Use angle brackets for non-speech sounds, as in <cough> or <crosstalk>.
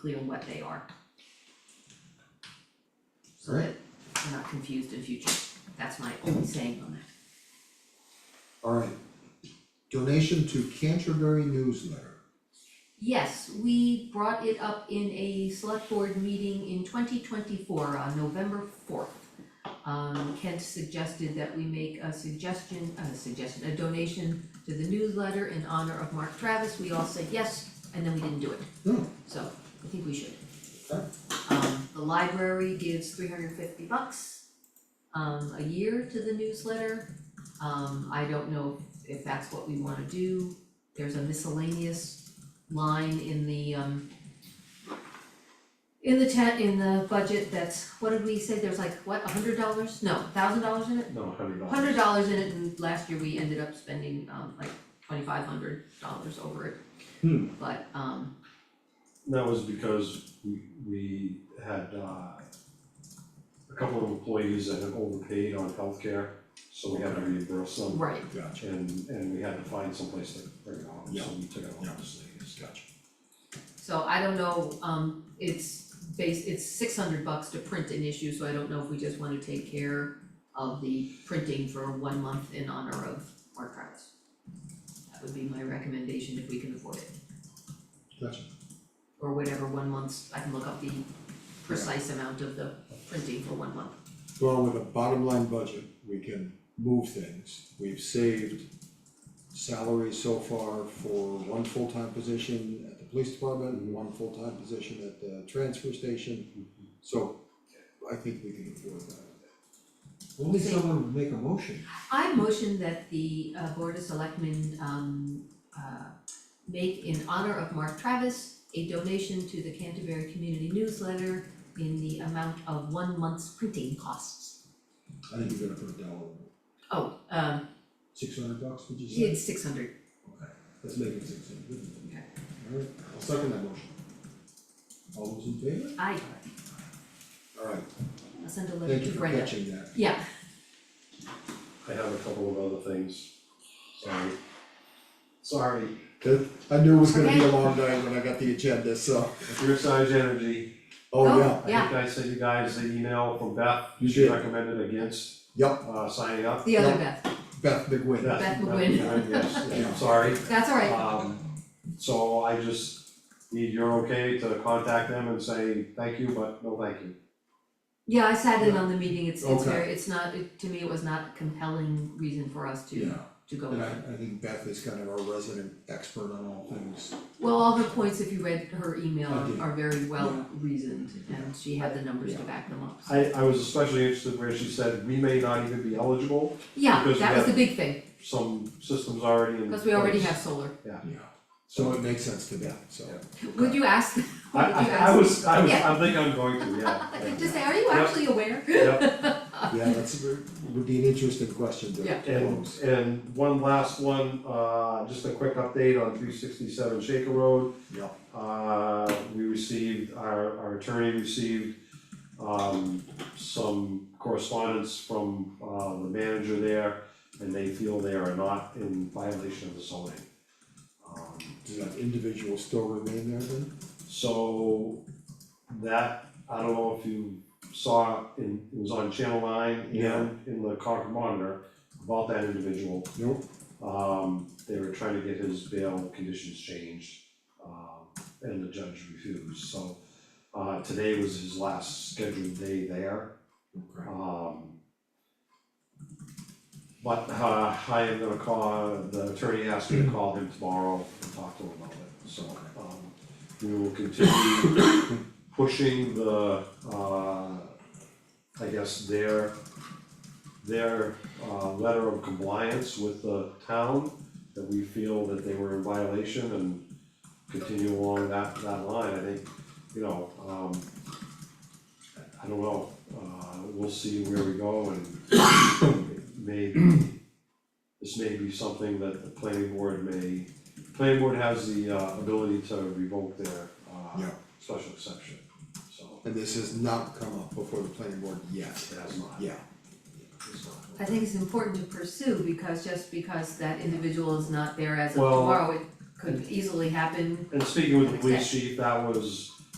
clear what they are. So Right. that we're not confused in future, that's my only saying on that. Alright. Donation to Canterbury Newsletter. Yes, we brought it up in a select board meeting in twenty twenty-four on November fourth. Um, Kent suggested that we make a suggestion, a suggestion, a donation to the newsletter in honor of Mark Travis, we all said yes, and then we didn't do it. Hmm. So, I think we should. Okay. Um, the library gives three hundred and fifty bucks um, a year to the newsletter. Um, I don't know if that's what we wanna do, there's a miscellaneous line in the um in the tent, in the budget that's, what did we say, there's like, what, a hundred dollars, no, thousand dollars in it? No, hundred dollars. Hundred dollars in it and last year we ended up spending um like twenty-five hundred dollars over it. Hmm. But um, That was because we, we had, uh, a couple of employees that had overpaid on healthcare, so we had to reimburse them. right, Gotcha, And, and we had to find someplace to bring it home, so Yeah. we took it home Yeah. to Salinas. gotcha. so I don't know, um, it's base, it's six hundred bucks to print an issue, so I don't know if we just wanna take care of the printing for one month in honor of Mark Travis. That would be my recommendation if we can afford it. Gotcha. or whatever one month's, I can look up the precise amount of the printing for one month. Well, with a bottom line budget, we can move things. We've saved salary so far for one full-time position at the police department and one full-time position at the transfer station. So I think we can afford that. Only someone would make a motion. I motion that the uh Board of Selectmen um uh make in honor of Mark Travis a donation to the Canterbury Community Newsletter in the amount of one month's printing costs. I think you're gonna put a dollar, Oh, um six hundred bucks, would you say? it's six hundred, Okay, let's make it six hundred. Okay. Alright, I'll second that motion. All those in favor? I Alright, I'll send a letter thank to you for Brenda. catching that. Yeah, I have a couple of other things, sorry. Sorry, Good. I knew it was gonna be a long night when I got the agenda, so, Riverside Energy, oh Oh, yeah, I Yeah. think I sent you guys the email from Beth, You she did. recommended against, yep, uh, signing up. the other Beth, Beth McWin. Beth- Beth McGuinn. Yes, <laughs> Yeah. I'm sorry. that's all right, Um, so I just need your okay to contact them and say, thank you, but no thank you. yeah, I sat in on the meeting, it's it's Okay. very, it's not, it to me, it was not a compelling reason for us to Yeah, to go and I, with. I think Beth is kind of our resident expert on all things. Well, all her points, if you read her email, I did. are very well Yeah. reasoned, and she had the numbers to Yeah. back them up. I, I was especially interested where she said, we may not even be eligible, Yeah, Because that we was the have- big thing, some systems already in place. because we already have solar. Yeah. So it makes sense to Beth, so. Yeah. Would you ask, <laughs> I, would you I, I ask? was, I was, Yeah. I think I'm going to, yeah, yeah. <laughs> Just say, are you Yep. actually aware? Yep. Yeah, that's, would be an interesting question to Yeah. And, close. and one last one, uh, just a quick update on three sixty-seven Shaker Road. Yeah. Uh, we received, our, our attorney received, um, some correspondence from, uh, the manager there, and they feel they are not in violation of the zoning. Um, Does that individual still remain there then? so, that, I don't know if you saw, in, it was on Channel Nine Yeah. and in the Concord Monitor about that individual. Nope. Um, they were trying to get his bail conditions changed, um, and the judge refused, so. Uh, today was his last scheduled day there, Okay. um. But, uh, I am gonna call, the attorney asked me to call him tomorrow and talk to him about it, so, um. We will continue pushing the, uh, I guess their, their, uh, letter of compliance with the town. That we feel that they were in violation and continue along that, that line, I think, you know, um. I don't know, uh, we'll see where we go and maybe, this may be something that the planning board may, planning board has the, uh, ability to revoke their, uh, Yeah. special exception, so. And this has not come up before the planning board yet. It has not. Yeah, it's not- I think it's important to pursue, because just because that individual is not there as of Well- tomorrow, it could easily happen. And speaking with the police chief, that was